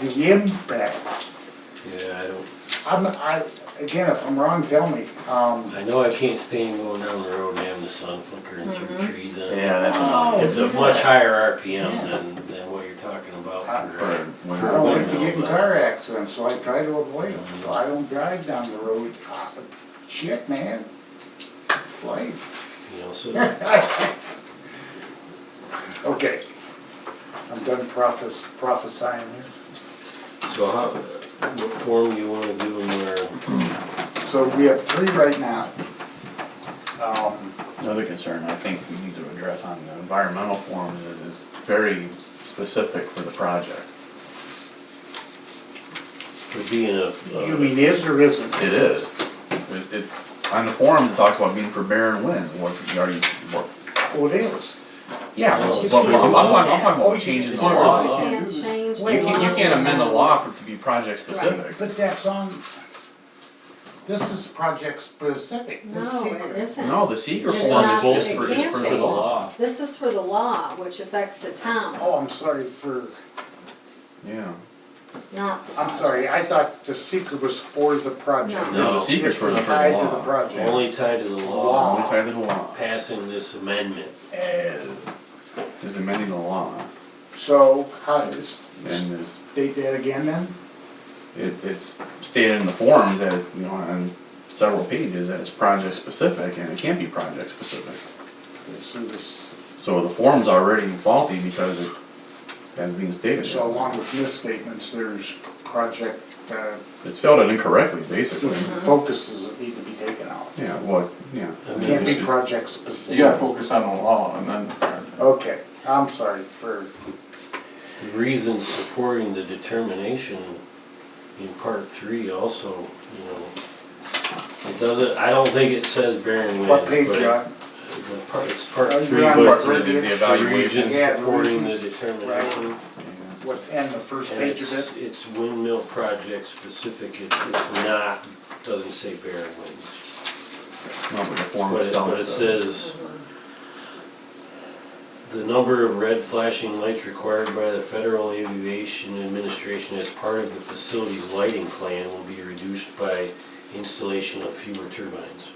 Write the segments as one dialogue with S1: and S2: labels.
S1: the impact,
S2: Yeah, I don't,
S1: I'm, I, again, if I'm wrong, tell me, um,
S2: I know I can't stand going down the road and having the sun flickering through trees on it.
S3: Yeah, that's
S1: Oh,
S2: It's a much higher RPM
S4: Yeah.
S2: than, than what you're talking about
S3: for
S2: for.
S1: I
S3: winter.
S1: don't like to get in car accidents, so I try to avoid them, so I don't drive down the road. Ah, Shit, man, it's life.
S2: You know, so,
S1: Okay, I'm done prophes- prophesying here.
S2: so how, what form do you wanna do them where,
S1: So we have three right now. Um,
S3: Another concern I think we need to address on the environmental form is it's very specific for the project.
S2: for being a,
S1: You
S2: a
S1: mean is or isn't?
S3: It is. It's, it's, on the form, it talks about being for bear and wind, what's, you already, what.
S1: Oh, it is.
S3: Yeah,
S2: Well,
S3: well,
S2: it's
S3: but I'm
S2: for
S3: I'm
S2: doing
S3: talking, I'm
S4: that.
S3: talking
S1: Oh, you
S3: about changing the
S1: can-
S3: law.
S2: law.
S1: you
S4: Can't
S1: can-
S4: change.
S3: You can't, you can't amend the law for it to be project specific.
S1: But that's on, this is project specific. This is
S4: No, it
S1: secret.
S4: isn't.
S3: No, the seeker
S4: It's
S3: form is
S4: not-
S3: both
S4: it
S3: for, is
S4: can't
S3: for
S4: be.
S3: the law.
S4: This is for the law, which affects the town,
S1: Oh, I'm sorry for,
S3: Yeah.
S4: not the
S1: I'm sorry, I thought the secret was for the project.
S4: No.
S3: This is secret
S1: This
S3: for
S1: is
S3: the
S1: tied to the
S3: law.
S1: project.
S2: only tied to the law,
S1: Law.
S3: Only tied to the law.
S2: passing this amendment.
S1: Uh,
S3: Is amending the law.
S1: So how does,
S3: And it's,
S1: state that again then?
S3: it, it's stated in the forms that, you know, on several pages that it's project specific and it can't be project specific.
S1: So this,
S3: So the form's already faulty because it's, has been stated.
S1: so along with misstatements, there's project, uh,
S3: It's filled it incorrectly, basically.
S1: focuses that need to be taken out.
S3: Yeah, well, yeah.
S2: I mean,
S1: Can't be
S2: it's-
S1: project
S5: You gotta
S1: specific.
S5: focus on the law and then.
S1: Okay, I'm sorry for,
S2: The reason supporting the determination in part three also, you know, it doesn't, I don't think it says bearing witness,
S1: what
S2: but
S1: page,
S2: it-
S1: John?
S2: the part, it's part
S1: Are you
S2: three,
S1: on
S2: but
S1: part
S2: the
S1: three?
S3: The- the
S2: the
S3: evaluation.
S2: reason
S1: Yeah, the
S2: supporting the
S1: reasons.
S2: determination.
S1: What, and the first
S2: And
S1: page of
S2: it's,
S1: it?
S2: it's windmill project specific, it, it's not, doesn't say bearing witness,
S3: No, but the form
S2: but it,
S3: itself
S2: but it
S3: does.
S2: says the number of red flashing lights required by the Federal Aviation Administration as part of the facility's lighting plan will be reduced by installation of fewer turbines.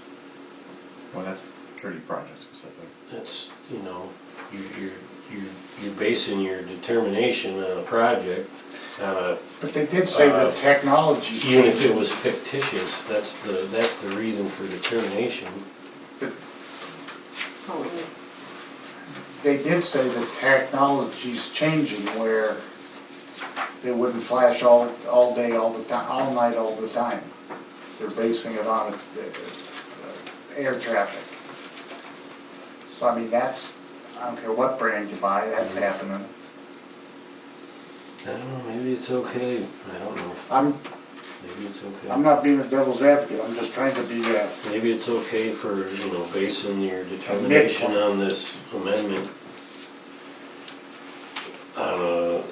S3: Well, that's pretty project specific.
S2: That's, you know, you're, you're, you're- you're basing your determination on a project, on a,
S1: But they did say the
S2: Uh,
S1: technology's
S2: even if it
S1: changing.
S2: was fictitious, that's the, that's the reason for determination.
S4: whole.
S1: They did say the technology's changing where they wouldn't flash all, all day, all the time, all night, all the time. They're basing it on uh, uh, air traffic. So I mean, that's, I don't care what brand you buy, that's
S2: Mm-hmm.
S1: happening.
S2: I don't know, maybe it's okay, I don't know,
S1: I'm,
S2: maybe it's
S1: I'm
S2: okay.
S1: not being a devil's advocate, I'm just trying to be uh, that.
S2: Maybe it's okay for, you know, basing your determination on this amendment on a,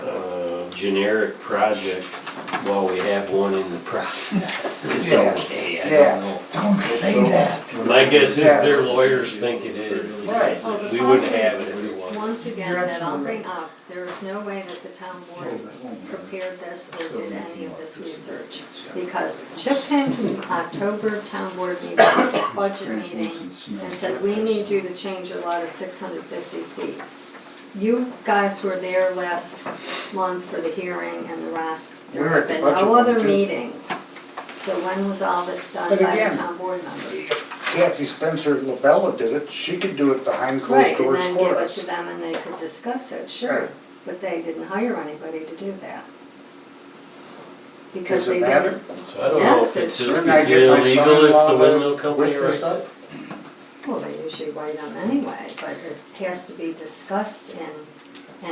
S2: a uh, generic project while we have one in the process. It's
S1: Yeah.
S2: okay, I
S1: Yeah.
S2: don't know.
S1: Don't say that.
S2: My guess is their lawyers think it is.
S1: Right.
S2: We wouldn't have it if it wasn't.
S4: Once again, that I'll bring up, there is no way that the town board prepared this or did any of this research. Because Chip came to the October town board meeting, budget meeting, and said, we need you to change your law to six hundred fifty feet. You guys were there last month for the hearing and the rest.
S1: We
S4: There
S1: were
S4: have
S1: at the
S4: been
S1: budget
S4: no
S1: one,
S4: other
S1: too.
S4: meetings. So when was all this done
S1: But
S4: by
S1: again,
S4: the town board members?
S1: If Kathy Spencer at LaBella did it, she could do it behind closed
S4: Right, and
S1: doors
S4: then give
S1: for
S4: it
S1: us.
S4: to them and they could discuss it,
S1: Right.
S4: sure, but they didn't hire anybody to do that. Because
S1: Does it
S4: they
S1: matter?
S4: didn't,
S2: So I don't know if
S4: Yes, it
S2: it's, is it
S4: should.
S1: Shouldn't I get my
S2: illegal if
S1: son-in-law
S2: the
S1: to
S2: windmill company
S1: whip this
S2: writes
S1: up?
S2: it?
S4: well, they usually write them anyway, but it has to be discussed and,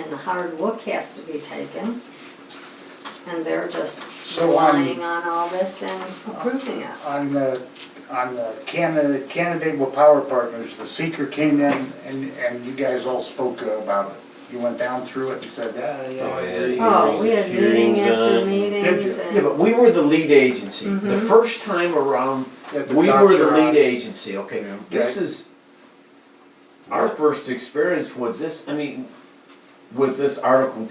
S4: and the hard look has to be taken. And they're just
S1: So I'm-
S4: relying on all this and approving it.
S1: On the, on the Canada, Canandaigua Power Partners, the seeker came in and, and you guys all spoke about it. You went down through it and said, yeah, yeah.
S2: Oh,
S1: I
S2: yeah.
S1: agree."
S4: Oh, we had meeting
S2: Hearings on
S4: after
S2: it.
S4: meetings
S1: Did
S6: Yeah,
S4: and,
S6: but we were the lead agency. The
S4: Mhm.
S6: first time around,
S1: At
S6: we were the lead
S1: doctor's.
S6: agency, okay?
S3: Yeah.
S6: This is our first experience with this, I mean, with this Article